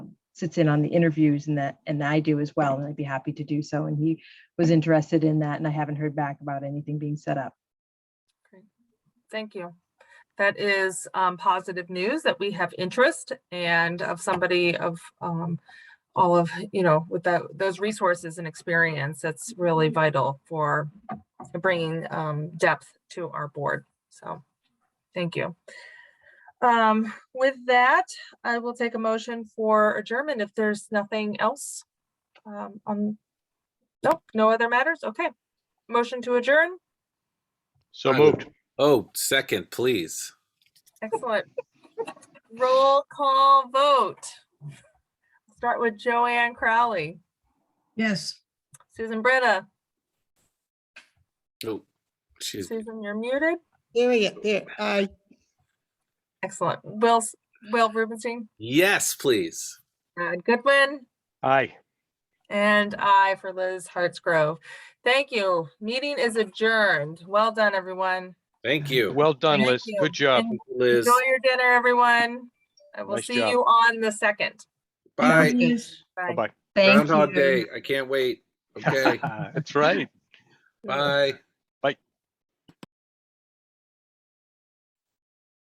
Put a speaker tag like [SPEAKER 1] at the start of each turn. [SPEAKER 1] sits in on the interviews and that, and I do as well, and I'd be happy to do so. And he was interested in that, and I haven't heard back about anything being set up.
[SPEAKER 2] Thank you. That is um, positive news that we have interest and of somebody of um, all of, you know, with that, those resources and experience, that's really vital for bringing um, depth to our board. So, thank you. Um, With that, I will take a motion for adjournment if there's nothing else. um, on- Nope, no other matters? Okay. Motion to adjourn?
[SPEAKER 3] So
[SPEAKER 4] I would-
[SPEAKER 3] moved.
[SPEAKER 4] Oh, second, please.
[SPEAKER 2] Excellent. Roll call vote. Start with Joanne Crowley,
[SPEAKER 5] Yes.
[SPEAKER 2] Susan Britta.
[SPEAKER 4] Oh, she's
[SPEAKER 2] Susan, you're muted.
[SPEAKER 5] There we go. There, I,
[SPEAKER 2] Excellent. Will, S- Will Rubenstein,
[SPEAKER 4] yes, please.
[SPEAKER 2] Brad Goodwin,
[SPEAKER 3] Aye.
[SPEAKER 2] and I for Liz Hartsgrove. Thank you. Meeting is adjourned. Well done, everyone.
[SPEAKER 4] Thank you.
[SPEAKER 3] Well done,
[SPEAKER 2] Thank
[SPEAKER 3] Liz.
[SPEAKER 2] you.
[SPEAKER 3] Good job.
[SPEAKER 2] And
[SPEAKER 4] Liz.
[SPEAKER 2] Enjoy your dinner, everyone. I will
[SPEAKER 3] Nice
[SPEAKER 2] see
[SPEAKER 3] job.
[SPEAKER 2] you on the second.
[SPEAKER 4] Bye.
[SPEAKER 2] Bye.
[SPEAKER 3] Bye-bye.
[SPEAKER 1] Thank you.
[SPEAKER 4] Groundhog Day. I can't wait. Okay.
[SPEAKER 3] That's right.
[SPEAKER 4] Bye.